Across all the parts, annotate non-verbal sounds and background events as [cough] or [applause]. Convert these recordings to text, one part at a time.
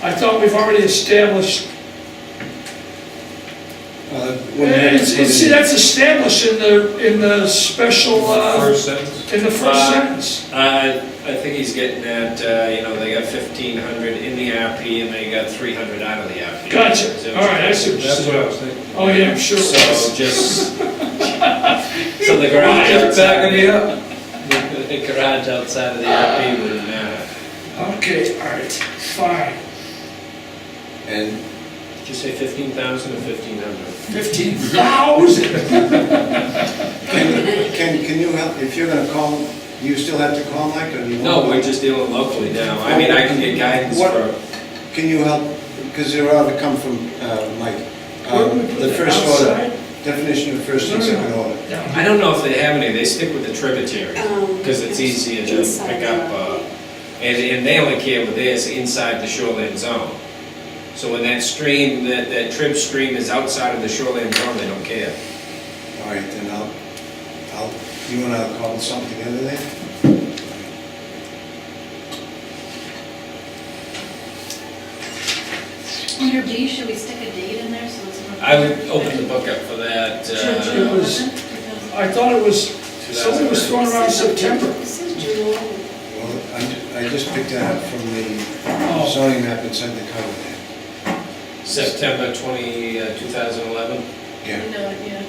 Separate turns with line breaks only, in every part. I thought we've already established,
Uh, when they-
it's, it's- eh, see, that's established in the, in the special, uh,
First sentence?
in the first
Uh,
sentence.
Uh, I think he's getting at, uh, you know, they got fifteen hundred in the RP and they got three hundred out of the RP.
Gotcha,
So-
all right, I see what you're
That's what
saying.
I was thinking.
Oh, yeah, I'm sure. [laughs]
So just, so the garage
Why?
outside,
it up.
the [laughs] the garage outside of the RP wouldn't matter.
Okay, all right, fine,
And
Did you say fifteen thousand or fifteen hundred?
fifteen thousand.
can, can, can you help, if you're gonna call, do you still have to call Mike or do you?
No, we're just dealing locally now. I mean, I can get guidance
What-
for,
Can you help, because they ought to come from, uh, Mike.
Where would
Um,
we put
The
it?
first order,
Outside?
definition of first and second order.
I don't know if they have any, they stick with the tributary,
Um,
because it's easier to
inside
pick up,
the-
uh, and, and they only care with theirs inside the shoreline zone. So when that stream, that, that trib stream is outside of the shoreline zone, they don't care.
All right, then I'll, I'll, you and I'll call something together then?
Under B, should we stick a date in there so it's? not-
I would open the book up for that,
Sure,
uh,
sure. was- I thought it was, somebody was throwing around September.
This is July.
Well, I, ju- I just picked that up from the
Oh.
zoning map inside the cover there.
September twenty, uh, two thousand eleven.
Yeah,
No, yeah.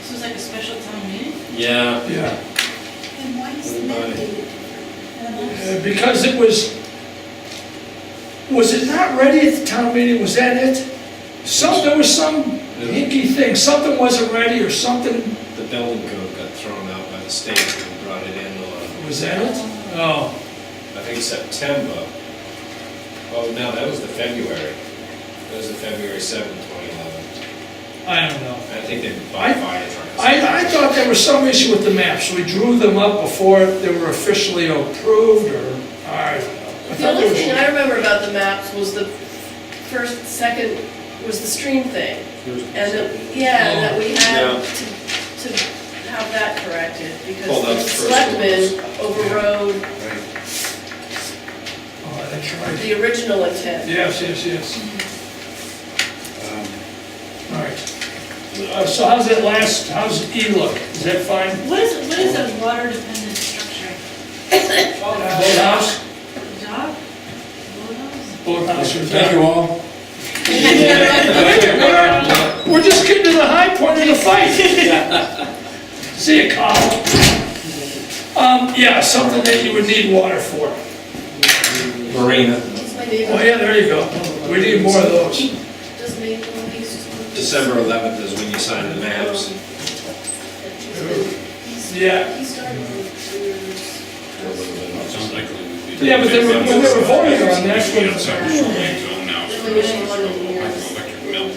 This was like a special town meeting?
Yeah.
Yeah.
And why is the
Everybody.
map dated different?
Uh, Because it was, was it not ready at the town meeting, was that it? Some, there was some hinky thing, something wasn't ready or something,
The building code got thrown out by the state and brought it in, uh,
was that it? Oh,
I think September. Oh, no, that was the February. That was the February seventh, twenty eleven.
I don't know.
I think they
I-
bought fire trucks.
I, I thought there was some issue with the maps, we drew them up before they were officially approved, or, I don't know. I
The
thought
only
there was-
thing I remember about the maps was the first, second, was the stream thing. And, the- yeah, and that we
Yeah.
had to, to have that corrected
Well,
because the
that's first
selectmen overrode
right.
Oh, that's right.
the original intent.
Yes, yes, yes,
Um,
all right. Uh, So how's that last, how's E look, is that fine?
What is, what is a water dependent structure?
Boathouse?
Dock? Boathouse?
Boathouse or
Thank you all.
We're just getting to the high point of the fight. See you, Carl. Um, yeah, something that you would need water for.
Marina,
It's my
Oh,
neighbor,
yeah, there you go. We need more of those.
does make all these.
December eleventh is when you sign the maps.
Yeah.
He started with
Yeah, but they were, when they were voting on that,
We got
when-
separate shoreline zone now,
the
so
elimination one in
it's
years.
electric mill,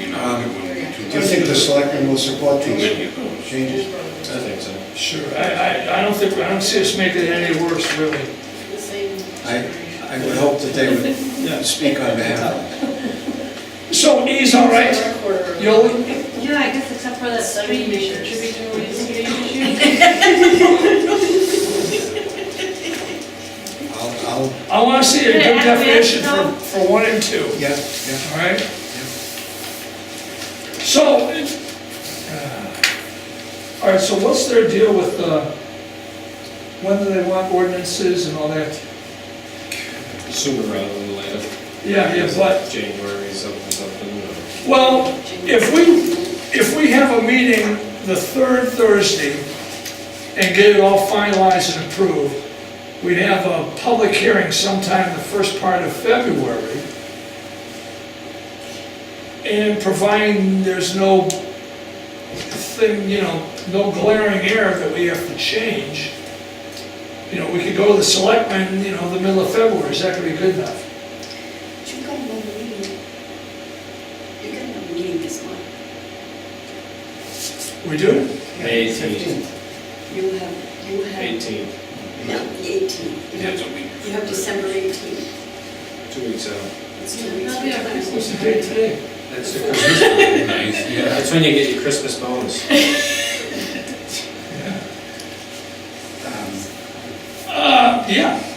you know,
Um,
it wouldn't be
Do
too
you think the selectmen will support
many
these
of those.
changes?
I think so.
sure, I, I, I don't think, I don't see us making it any worse, really.
The same.
I, I would hope that they would speak on behalf of
So E's all right? You'll,
Yeah, I guess except for that stream issue, tributary stream issue.
I'll, I'll,
I wanna see a good
Yeah,
definition for,
yeah.
for one and two.
yeah, yeah.
All right? So, it- uh, all right, so what's their deal with, uh, when do they want ordinances and all that?
Sooner rather than later.
Yeah, yeah, but,
January something, something. or-
well, if we, if we have a meeting the third Thursday and get it all finalized and approved, we'd have a public hearing sometime the first part of February. And providing there's no thing, you know, no glaring error that we have to change, you know, we could go to the selectmen, you know, the middle of February, is that gonna be good enough?
But you got one meeting. You got one meeting this month.
We do?
May eighteenth,
You have, you have,
eighteenth,
no, the 18th. You
It's
have-
a week.
You have December 18th.
two weeks out.
It's two weeks.
That'll be our
What's the
Christmas.
date today?
That's the Christmas. [laughs]
Nice, yeah.
That's when you get your Christmas bonus.
Um,
Uh, yeah.